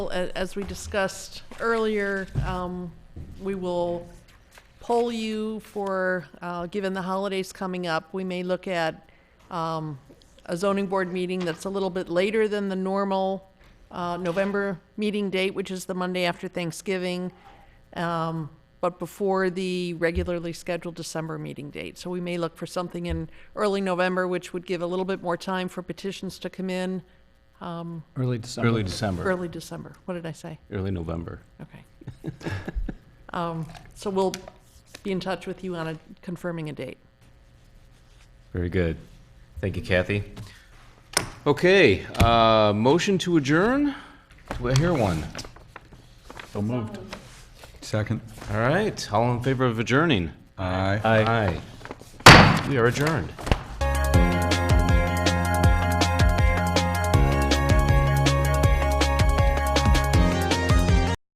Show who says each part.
Speaker 1: A- As we discussed earlier, um, we will poll you for, uh, given the holidays coming up, we may look at um, a zoning board meeting that's a little bit later than the normal uh, November meeting date, which is the Monday after Thanksgiving, um, but before the regularly scheduled December meeting date. So we may look for something in early November, which would give a little bit more time for petitions to come in,
Speaker 2: Early December.
Speaker 3: Early December,
Speaker 1: early December. What did I say?
Speaker 3: early November.
Speaker 1: Okay. Um, So we'll be in touch with you on a, confirming a date.
Speaker 3: Very good. Thank you, Kathy. Okay, uh, motion to adjourn? Do I hear one?
Speaker 2: So moved. Second.
Speaker 3: All right, all in favor of adjourning?
Speaker 2: Aye.
Speaker 3: Aye. We are adjourned.